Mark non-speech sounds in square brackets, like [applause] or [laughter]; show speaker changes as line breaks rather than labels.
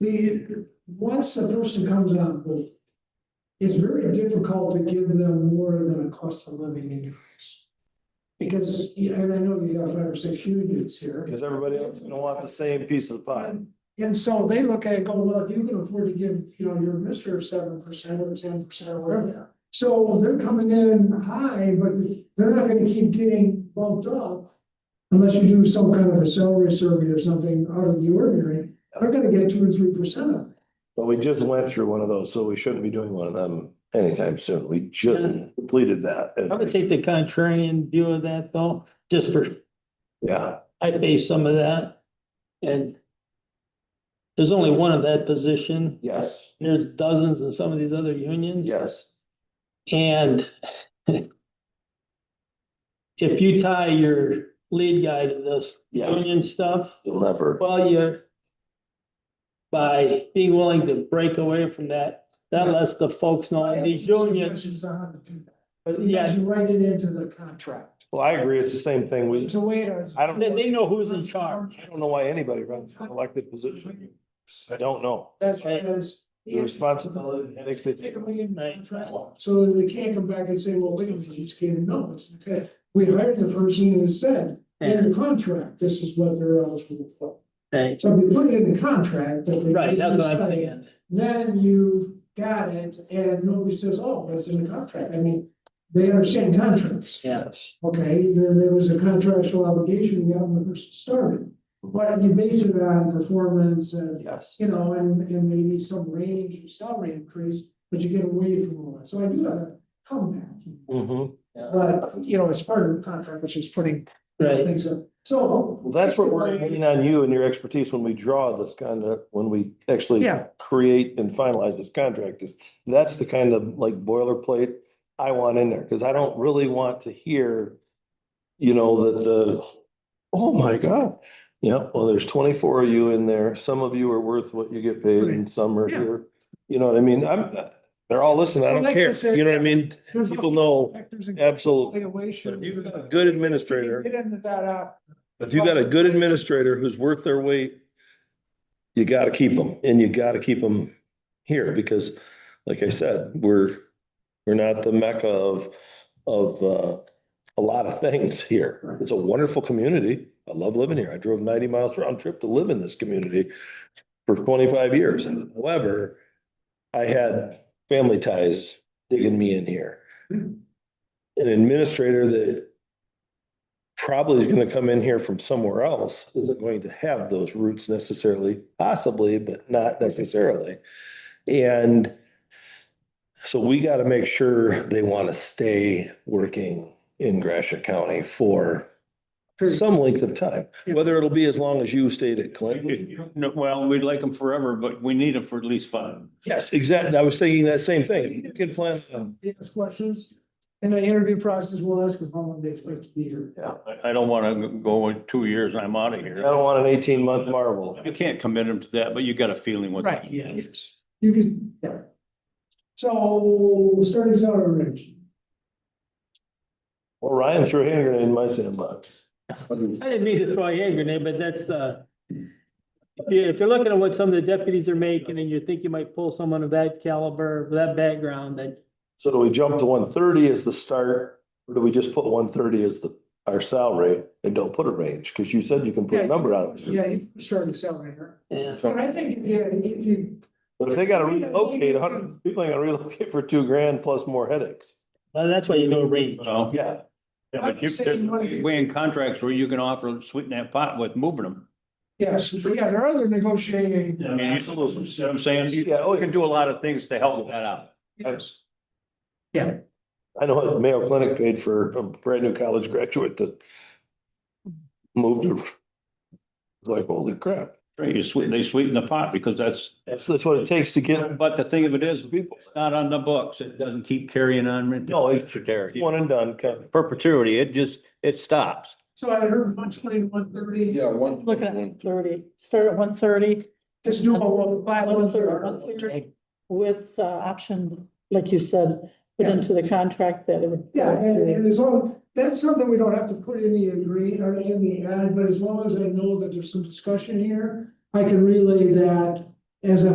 The, once a person comes on board. It's very difficult to give them more than a cost of living increase. Because, yeah, and I know you have five or six unions here.
Because everybody else don't want the same piece of the pie.
And, and so they look at it, go, well, if you can afford to give, you know, your mister seven percent or ten percent or whatever. So they're coming in high, but they're not gonna keep getting bumped up. Unless you do some kind of a salary survey or something out of the ordinary, they're gonna get two or three percent of it.
But we just went through one of those, so we shouldn't be doing one of them anytime soon. We just completed that.
I would take the contrarian view of that though, just for,
Yeah,
I face some of that. And there's only one of that position.
yes,
There's dozens in some of these other unions.
yes,
And [laughs] if you tie your lead guy to this
Yes.
union stuff,
you'll never.
well, you're by being willing to break away from that, that lets the folks know in these unions,
Suggestions on how to do that.
but
Yeah,
yeah,
you write it into the contract.
Well, I agree. It's the same thing. We,
It's a way to.
I don't,
they,
I
they know who's in charge.
don't know why anybody runs for an elected position. I don't know.
That's
Right.
because.
The responsibility, and headaches they
Take
take.
away in the
Right.
contract, so that they can't come back and say, well, wait, a minute, you just can't, no, it's okay. We hired the person who said, in the contract, this is what they're eligible for.
Right,
So if you put it in the contract that they.
right, that's what I'm
Right.
thinking.
Then you've got it, and nobody says, oh, it's in the contract, I mean, they understand contracts.
Yeah,
Yes.
Okay, there, there was a contractual obligation we had when we first started. But you base it on performance and,
Yes.
you know, and, and maybe some range of salary increase, but you get away from all that. So I do have a comeback.
Mhm.
But, you know, it's part of the contract, which is putting
right.
things up. So.
Well, that's what we're leaning on you and your expertise when we draw this kind of, when we actually
Yeah,
create and finalize this contract is, that's the kind of like boilerplate I want in there, because I don't really want to hear, you know, that the, oh my God. Yeah, well, there's twenty-four of you in there. Some of you are worth what you get paid and some are
Yeah.
here. You know what I mean? I'm, they're all listening. I
Well,
don't
like I
care.
said,
You know what I mean?
there's
People know,
factors and
absolutely. But
evaluation.
if you've got a good administrator,
Get into that, uh,
if you've got a good administrator who's worth their weight, you gotta keep them and you gotta keep them here because like I said, we're, we're not the mecca of, of, uh, a lot of things here. It's a wonderful community. I love living here. I drove ninety miles round trip to live in this community for twenty-five years. However, I had family ties digging me in here. An administrator that probably is gonna come in here from somewhere else isn't going to have those roots necessarily, possibly, but not necessarily. And so we gotta make sure they wanna stay working in Gratiot County for some length of time, whether it'll be as long as you stayed at Clinton.
No, well, we'd like them forever, but we need them for at least five.
Yes, exactly. I was thinking that same thing. You can plan some.
ask questions. In the interview process, we'll ask them how long they expect to be here.
I, I don't want to go in two years and I'm out of
I
here.
don't want an eighteen month marvel.
You can't commit them to that, but you got a feeling with.
Yes. You can, yeah. So starting salary range,
Well, Ryan threw a hand grenade in my sandbox.
I didn't mean to throw a hand grenade, but that's the, if you, if you're looking at what some of the deputies are making and you think you might pull someone of that caliber, of that background, that,
So do we jump to one thirty as the start? Or do we just put one thirty as the, our salary and don't put a range? Cause you said you can put a number on it.
yeah, you can start at salary range.
yeah.
But I think if you, if you,
But if they gotta relocate, a hundred, people ain't gonna relocate for two grand plus more headaches.
Well, that's why you do a range.
Well, yeah,
Yeah,
but you- we in contracts where you can offer sweeten that pot with moving them.
yes, but yeah, there are other negotiating.
I mean, you-
Absolutely.
see what I'm saying, you
Yeah, oh, yeah.
can do a lot of things to help that out.
Yes.
I know what Mayo Clinic paid for a brand new college graduate that moved to. It's Like, holy crap.
Right, you sweeten, they sweeten the pot because that's,
That's, that's what it takes to get
but the thing of it is,
people.
it's not on the books. It doesn't keep carrying on.
No, it's-
there.
One and done, kind of.
Perpetuity, it just, it stops.
So I heard one twenty, one thirty,
Yeah, one.
Looking at one thirty, start at one thirty
just do a one, five, one thirty.
Okay. with uh option, like you said, put
Yeah.
into the contract that it would.
Yeah, and, and as long, that's something we don't have to put in the agree or in the ad, but as long as I know that there's some discussion here, I can relay that as a